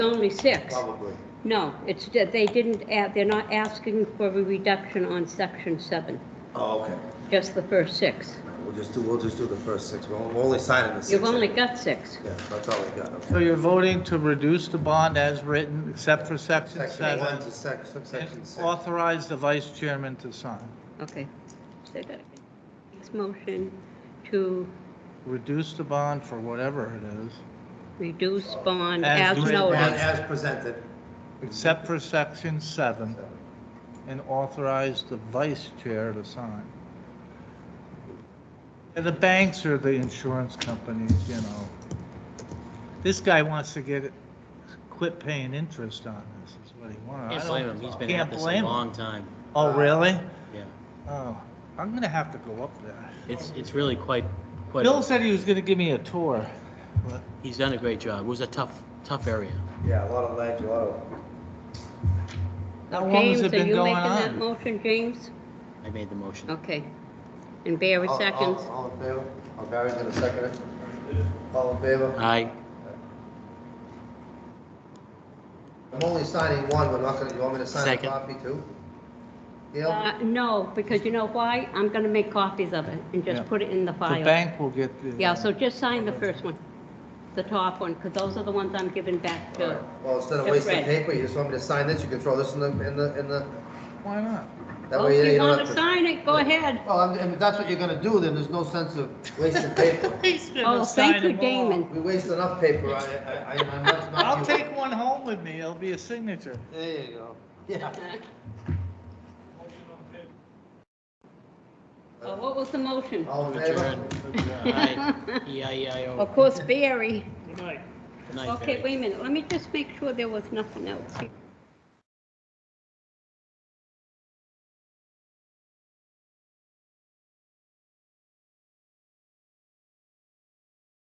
only six. Probably. No, it's, that they didn't add, they're not asking for a reduction on section seven, Oh, okay. just the first six. We'll just do, we'll just do the first six. We're on- we're only signing the six. You've only anyway. got six. Yeah, that's all we got. So okay. you're voting to reduce the bond as written, except for section Section one seven? to sec, subsection and six. Authorize the vice chairman to sign. Okay. Say that again. Next motion to Reduce the bond for whatever it is, reduce bond As as written. And noted. As presented. except for section seven, and authorize the vice chair to sign. And the banks or the insurance companies, you know. This guy wants to get, it- quit paying interest on this, is what he wants. I Can't don't- blame him, he's been can't at this a blame him. long time, Oh, really? yeah. Oh, I'm gonna have to go up there. It's, it's really quite, quite, Bill a- said he was gonna give me a tour. but he's done a great job, it was a tough, tough area. Yeah, a lot of legs, a lot of. How long has James, it are been you going making that on? motion, James? I made the motion. Okay. And Barry All- all- seconds. All in favor? Oh, Barry's gonna second it. All in favor? I, I'm only signing one. We're not gonna, you want me to sign a Second. copy too? Gail? Uh, no, because you know why? I'm gonna make copies of it and just Yeah. put it in the The file. bank will get the. Yeah, so just sign the first one, the top one, because those are the ones I'm giving back to. All right. Well, instead of Just wasting red. paper, you just want me to sign this? You can throw this in the, in the, in the, Why not? that Well, way Oh, If you you don't want have to to. sign it, go ahead. Well, I'm- if that's what you're gonna do, then there's no sense of wasting paper. Oh, thank you, Damon. We waste enough paper, I, I, I- I'm not. not I'll you. take one home with me, it'll be a signature. There you go. Yeah. Oh, What was the motion? All in favor? Adjourn. Aye. E E-I-E-I-O. Of course, Barry. Good night, Okay, Barry. wait a minute, let me just make sure there was nothing else. here.